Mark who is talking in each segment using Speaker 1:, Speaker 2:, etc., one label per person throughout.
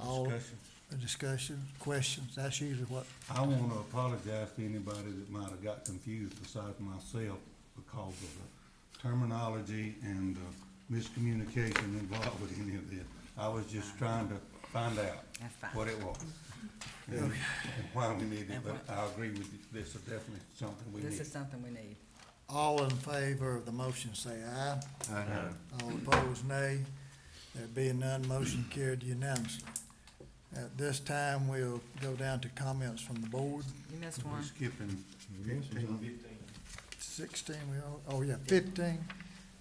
Speaker 1: All-
Speaker 2: discussion.
Speaker 1: a discussion, questions, that's usually what,
Speaker 2: I want to apologize to anybody that might have got confused besides myself because of the terminology and the miscommunication involved with any of this. I was just trying to find out
Speaker 3: That's fine.
Speaker 2: what it was. And and why we need it, but I agree with you, this is definitely something we
Speaker 3: This
Speaker 2: need.
Speaker 3: is something we need.
Speaker 1: all in favor of the motion, say aye.
Speaker 2: Aye.
Speaker 1: All opposed, nay. There being none, motion carried unanimously. At this time, we'll go down to comments from the board.
Speaker 3: You missed
Speaker 2: We're
Speaker 3: one.
Speaker 2: skipping fifteen.
Speaker 1: Sixteen, we, all- oh, yeah, fifteen.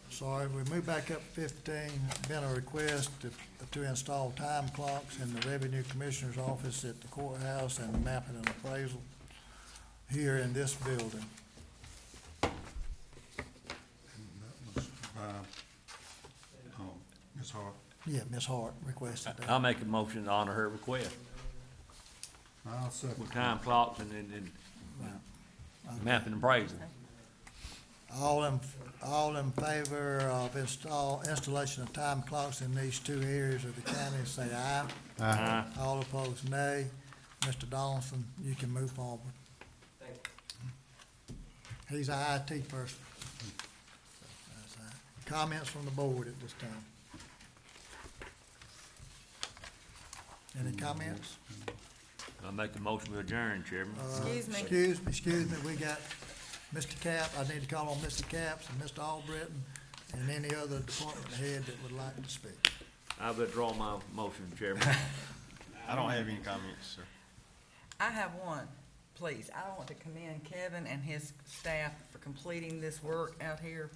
Speaker 1: Sorry, we move back up fifteen. Been a request to, to install time clocks in the Revenue Commissioner's office at the courthouse and mapping and appraisal here in this building.
Speaker 2: That was by, um, Ms. Hart.
Speaker 1: Yeah, Ms. Hart requested that.
Speaker 4: I'll make a motion to honor her request
Speaker 2: I'll second.
Speaker 4: with time clocks and, and, and mapping and appraisal.
Speaker 1: All in, all in favor of install, installation of time clocks in these two areas of the county, say aye.
Speaker 4: Aye.
Speaker 1: All opposed, nay. Mr. Donaldson, you can move forward. He's a IT person. That's all right. Comments from the board at this time? Any comments?
Speaker 4: I'll make a motion to adjourn, Chairman.
Speaker 3: Excuse me.
Speaker 1: Excuse me, excuse me, we got Mr. Cap, I need to call on Mr. Caps and Mr. Albritton and any other department head that would like to speak.
Speaker 4: I withdraw my motion, Chairman.
Speaker 5: I don't have any comments, sir.
Speaker 3: I have one, please. I want to commend Kevin and his staff for completing this work out here.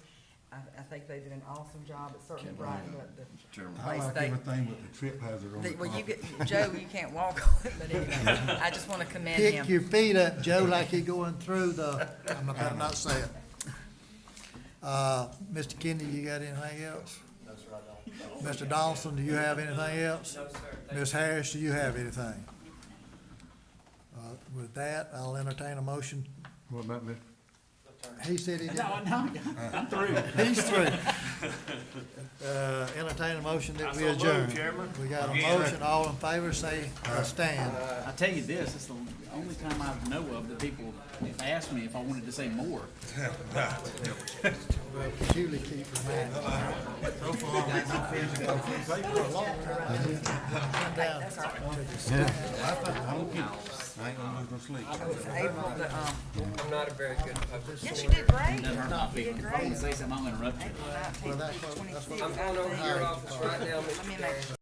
Speaker 3: I, I think they did an awesome job. It's certainly brightened up the
Speaker 2: I
Speaker 3: place.
Speaker 2: like
Speaker 3: They,
Speaker 2: everything with the trip hazard on the
Speaker 3: they- well, you
Speaker 2: carpet.
Speaker 3: get, Joe, you can't walk on it, but anyway, I just want to commend him.
Speaker 1: Kick your feet up, Joe, like you're going through the, I'm not, I'm not saying. Uh, Mr. Kennedy, you got anything else? Mr. Donaldson, do you have anything else? No, sir. Ms. Harris, do you have anything? Uh, with that, I'll entertain a motion.
Speaker 2: What about Mr.
Speaker 1: He said he didn't. No, no, I'm through. He's through. Uh, entertain a motion that we adjourn. We got a motion, all in favor, say, uh, stand.
Speaker 6: I tell you this, it's the only time I know of that people ask me if I wanted to say more.
Speaker 1: Julie keep reminding. me.
Speaker 2: I ain't gonna lose no sleep.
Speaker 3: April, the, um,
Speaker 7: Yes, you did great.
Speaker 6: Not people, if I want to say something, I'll interrupt you.
Speaker 3: April nineteenth,
Speaker 1: that's what- that's what-
Speaker 3: twenty-sixth.
Speaker 7: I'm out on your office right now, Mr.
Speaker 3: Let me make
Speaker 7: Barry.